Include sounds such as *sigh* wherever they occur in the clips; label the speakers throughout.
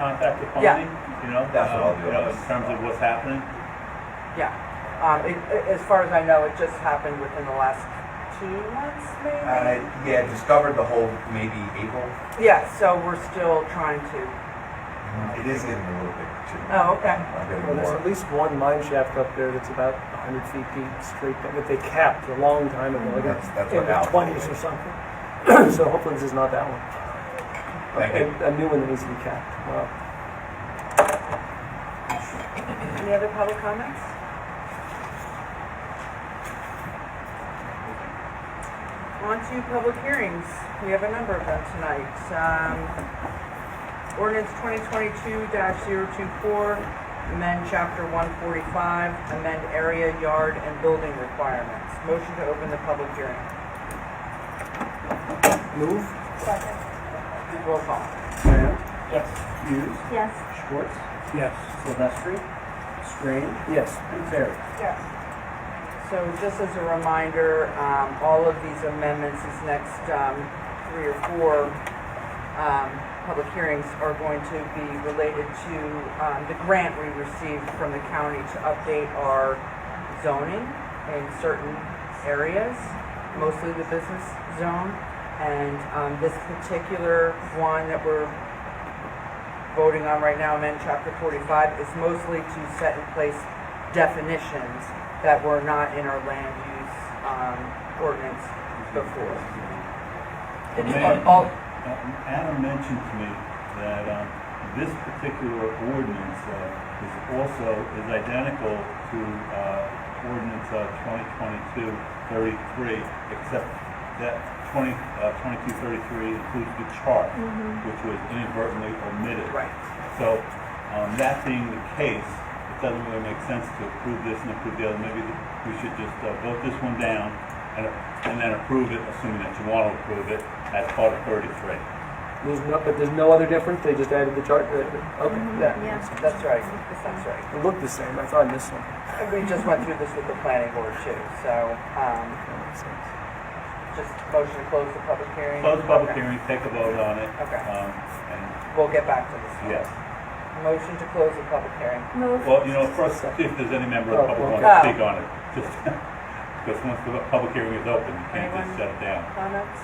Speaker 1: contact with
Speaker 2: Yeah.
Speaker 1: Bonnie, you know?
Speaker 3: That's what I'll
Speaker 1: um,
Speaker 3: do.
Speaker 1: You know, in terms of what's happening.
Speaker 2: Yeah. Um, it, it- as far as I know, it just happened within the last two months, maybe?
Speaker 3: Uh, yeah, discovered the whole maybe April.
Speaker 2: Yeah, so we're still trying to,
Speaker 3: It is getting a little bit too.
Speaker 2: oh, okay.
Speaker 3: I'm getting
Speaker 4: Well, there's
Speaker 3: more.
Speaker 4: at least one mine shaft up there that's about 100 feet deep straight down that they capped a long time ago, like
Speaker 3: That's- that's
Speaker 4: in
Speaker 3: what
Speaker 4: the
Speaker 3: Al
Speaker 4: 20s
Speaker 3: told
Speaker 4: or
Speaker 3: me.
Speaker 4: something. *clears throat* so hopefully this is not that one.
Speaker 3: Thank
Speaker 4: a,
Speaker 3: you.
Speaker 4: a new one that needs to be capped. Wow.
Speaker 2: Any other public comments? On to public hearings. We have a number of them tonight. Um, ordinance twenty twenty-two 24 amend chapter one forty-five, amend area, yard, and building requirements. Motion to open the public hearing.
Speaker 4: Move.
Speaker 5: Second.
Speaker 2: Roll call.
Speaker 6: Graham,
Speaker 4: Yes.
Speaker 6: Hughes,
Speaker 5: Yes.
Speaker 6: Schwartz,
Speaker 4: Yes.
Speaker 6: Silvestri, Strange,
Speaker 4: Yes.
Speaker 6: and Terry.
Speaker 5: Yes.
Speaker 2: So just as a reminder, um, all of these amendments, these next, um, three or four, um, public hearings are going to be related to, um, the grant we received from the county to update our zoning in certain areas, mostly the business zone. And, um, this particular one that we're voting on right now, amend chapter forty-five, is mostly to set in place definitions that were not in our land use, um, ordinance before. It's
Speaker 1: Man.
Speaker 2: all,
Speaker 1: Uh, Adam mentioned to me that um, this particular ordinance uh, is also, is identical to uh, ordinance uh, 2022-33, except that 20, uh, 2233 includes the chart,
Speaker 3: Mm-hmm.
Speaker 1: which was inadvertently omitted.
Speaker 2: right.
Speaker 1: So, um, that being the case, it doesn't really make sense to approve this and approve the other. Maybe th- we should just uh, vote this one down and, and then approve it, assuming that you want to approve it, as part of thirty-three.
Speaker 4: There's no, but there's no other difference. They just added the chart. uh, Okay. That
Speaker 5: Yeah.
Speaker 2: That's right, that's right.
Speaker 4: it looked the same. I thought I missed something.
Speaker 2: And we just went through this with the planning board too, so, um,
Speaker 4: That makes sense.
Speaker 2: just motion to close the public hearing.
Speaker 1: Close the public
Speaker 2: Okay.
Speaker 1: hearing, take a vote on it.
Speaker 2: Okay.
Speaker 1: Um, and,
Speaker 2: We'll get back to this. one.
Speaker 1: yes.
Speaker 2: Motion to close the public hearing.
Speaker 5: Move.
Speaker 1: Well, you know, first, see if there's any member of the public who
Speaker 2: Oh,
Speaker 1: wants to
Speaker 2: okay.
Speaker 1: speak on it. Just, because once the public hearing is open, you can't just
Speaker 2: Anyone?
Speaker 1: shut it down.
Speaker 2: Comments?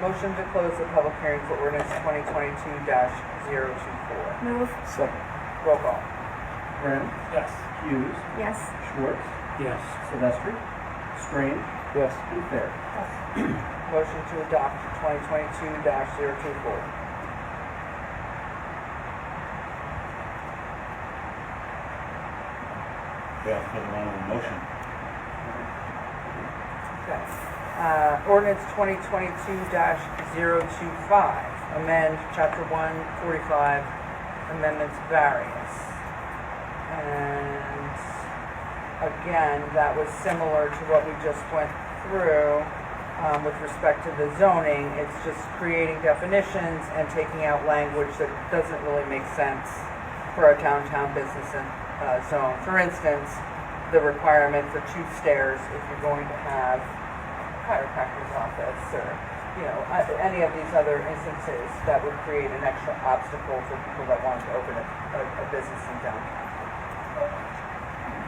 Speaker 2: Motion to close the public hearing for ordinance twenty twenty-two 24
Speaker 5: Move.
Speaker 4: Second.
Speaker 2: Roll call.
Speaker 6: Graham,
Speaker 4: Yes.
Speaker 6: Hughes,
Speaker 5: Yes.
Speaker 6: Schwartz,
Speaker 4: Yes.
Speaker 6: Silvestri, Strange,
Speaker 4: Yes.
Speaker 6: and Terry.
Speaker 2: Motion to adopt twenty twenty-two 24
Speaker 1: We also have one other motion.
Speaker 2: Okay. Uh, ordinance twenty twenty-two 25 amend chapter one forty-five, amendments various. And again, that was similar to what we just went through, um, with respect to the zoning. It's just creating definitions and taking out language that doesn't really make sense for our downtown business and, uh, zone. For instance, the requirement for two stairs if you're going to have chiropractor's office or, you know, a- any of these other instances that would create an extra obstacle for people that wanted to open a, a, a business in downtown.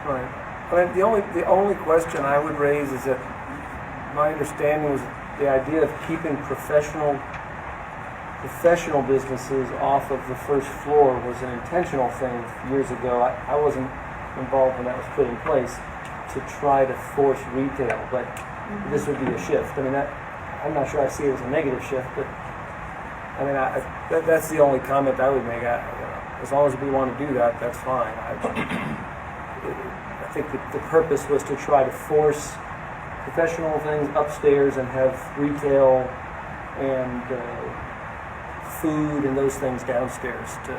Speaker 4: Right. But the only, the only question I would raise is that my understanding was the idea of keeping professional, professional businesses off of the first floor was an intentional thing years ago. I, I wasn't involved when that was put in place to try to force retail, but this would be a shift. I mean, that, I'm not sure I see it as a negative shift, but I mean, I, I- that, that's the only comment I would make. I, as long as we want to do that, that's fine. I, I think the, the purpose was to try to force professional things upstairs and have retail and uh, food and those things downstairs to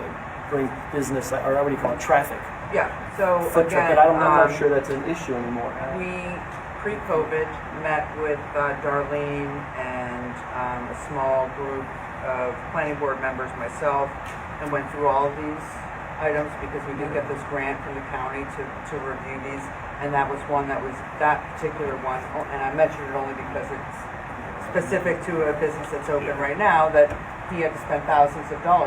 Speaker 4: bring business, or what do you call it, traffic.
Speaker 2: Yeah, so
Speaker 4: Foot
Speaker 2: Oh, again,
Speaker 4: traffic. But I don't, I'm
Speaker 2: um,
Speaker 4: not sure that's an issue anymore.
Speaker 2: we, pre-COVID, met with uh, Darlene and um, a small group of planning board members, myself, and went through all of these items because we did get this grant from the county to, to review these. And that was one that was, that particular one, oh, and I mentioned it only because it's specific to a business that's open
Speaker 1: Yeah.
Speaker 2: right now, that he had to spend thousands of dollars